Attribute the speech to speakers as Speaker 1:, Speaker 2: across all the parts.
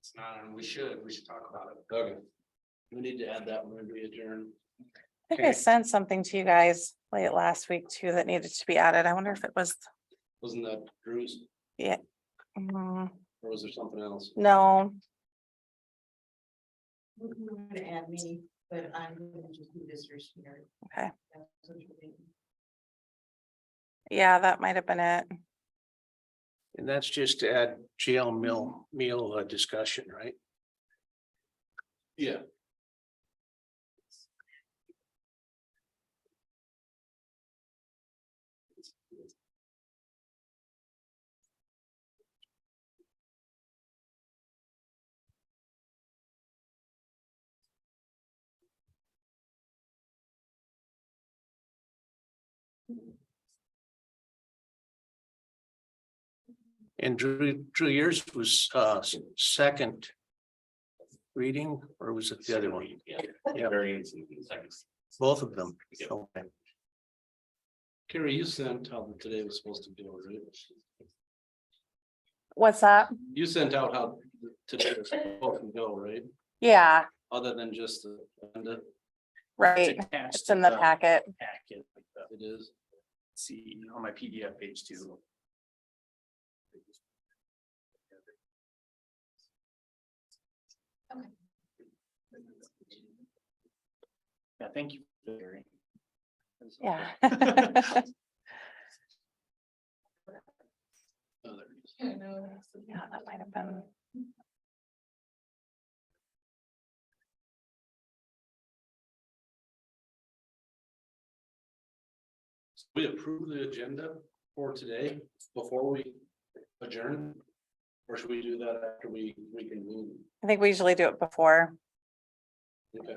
Speaker 1: It's not, and we should, we should talk about it.
Speaker 2: Okay. We need to add that when we adjourn.
Speaker 3: I think I
Speaker 1: Okay.
Speaker 3: sent something to you guys late last week too that needed to be added. I wonder if it was,
Speaker 2: Wasn't that Drew's
Speaker 3: mm,
Speaker 2: or was there something else?
Speaker 3: no,
Speaker 4: We're gonna add me, but I'm gonna just do this year's here.
Speaker 3: Okay. yeah, that might have been it.
Speaker 5: And that's just to add jail meal, meal uh, discussion, right?
Speaker 2: Yeah.
Speaker 5: And Drew, Drew, yours was uh s- second reading, or was it the other one?
Speaker 1: Yeah.
Speaker 5: Yeah.
Speaker 1: Variance in seconds.
Speaker 5: Both of them.
Speaker 1: Yeah.
Speaker 5: Okay.
Speaker 2: Carrie, you sent out that today was supposed to be, right?
Speaker 3: What's that?
Speaker 2: You sent out how today was supposed to go, right?
Speaker 3: Yeah,
Speaker 2: Other than just the, agenda,
Speaker 3: right. It's in the packet.
Speaker 6: packet, like the,
Speaker 2: it is.
Speaker 6: see, on my PDF page two. Yeah, thank you. Larry.
Speaker 3: Yeah.
Speaker 2: Oh, there it is.
Speaker 3: Yeah, that might have been.
Speaker 2: We approve the agenda for today before we adjourn? Or should we do that after we, we can move?
Speaker 3: I think we usually do it before.
Speaker 2: Okay.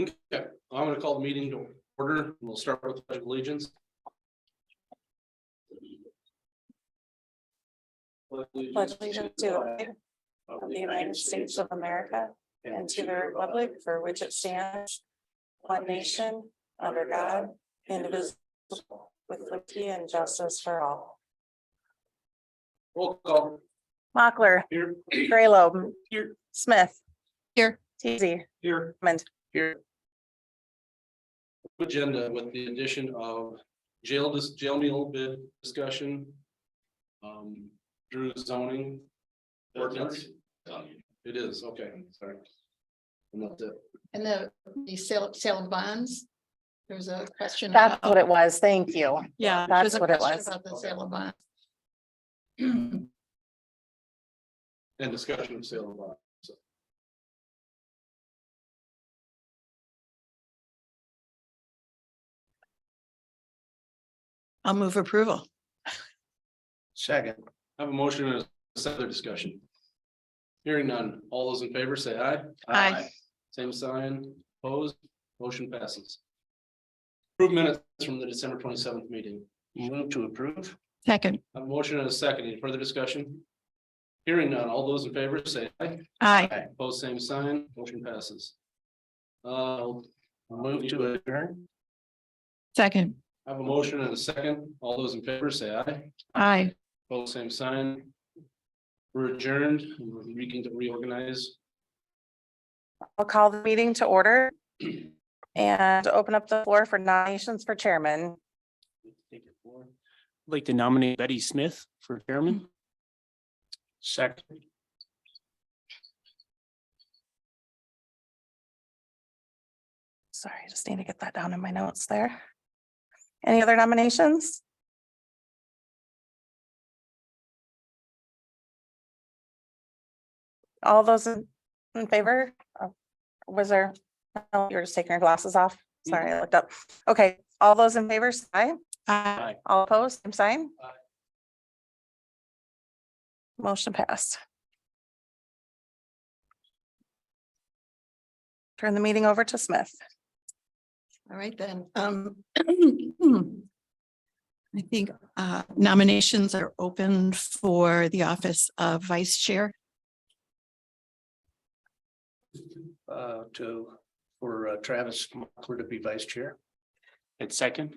Speaker 2: Okay, I'm gonna call the meeting to order. and We'll start with pledge of allegiance.
Speaker 3: Pledge allegiance to the
Speaker 2: uh,
Speaker 3: flag of the United States of America and to the republic for which it stands, one nation, under God, indivisible, with liberty and justice for all.
Speaker 2: Roll call
Speaker 3: Mochler,
Speaker 2: here.
Speaker 3: Graylobe,
Speaker 2: Here.
Speaker 3: Smith. Here. Teasy,
Speaker 2: Here.
Speaker 3: Hammond.
Speaker 2: Here. Agenda with the addition of jail, dis jail meal bid discussion. Um, Drew zoning. Ordinance. It is, okay, sorry. And that's it.
Speaker 7: And the, the sale, sale of bonds, there was a question.
Speaker 3: That's
Speaker 7: about-
Speaker 3: what it was. Thank you.
Speaker 7: Oh. Yeah.
Speaker 3: that's
Speaker 7: there's a
Speaker 3: what it
Speaker 7: question
Speaker 3: was.
Speaker 7: About the sale of bonds.
Speaker 2: And discussion of sale of lot. so.
Speaker 7: I'll move approval.
Speaker 5: Second,
Speaker 2: I have a motion and a second discussion. Hearing none, all those in favor say aye.
Speaker 7: Aye.
Speaker 2: Same sign, opposed, motion passes. Approved minutes from the December twenty seventh meeting.
Speaker 5: move to approve.
Speaker 7: Second.
Speaker 2: I have A motion and a second, any further discussion? Hearing none, all those in favor say aye,
Speaker 7: Aye.
Speaker 2: opposed, same sign, motion passes. Uh,
Speaker 5: Move to adjourn.
Speaker 7: Second.
Speaker 2: I have a motion and a second, all those in favor say aye,
Speaker 7: Aye.
Speaker 2: opposed, same sign. We're adjourned, we can reorganize.
Speaker 3: I'll call the meeting to order and open up the floor for nominations for chairman.
Speaker 6: Take it forward. I'd Like to nominate Betty Smith for chairman.
Speaker 5: Second,
Speaker 3: Sorry, I just need to get that down in my notes there. Any other nominations? All those in in favor? Oh, Was there, oh, you were just taking your glasses off. Sorry, I looked up. Okay, all those in favor, say aye.
Speaker 7: Aye.
Speaker 3: All opposed, same sign?
Speaker 2: Aye.
Speaker 3: Motion passed. Turn the meeting over to Smith.
Speaker 7: All right then. Um. I think uh, nominations are open for the office of vice chair.
Speaker 5: uh, to, for uh, Travis Mochler to be vice chair.
Speaker 6: And second,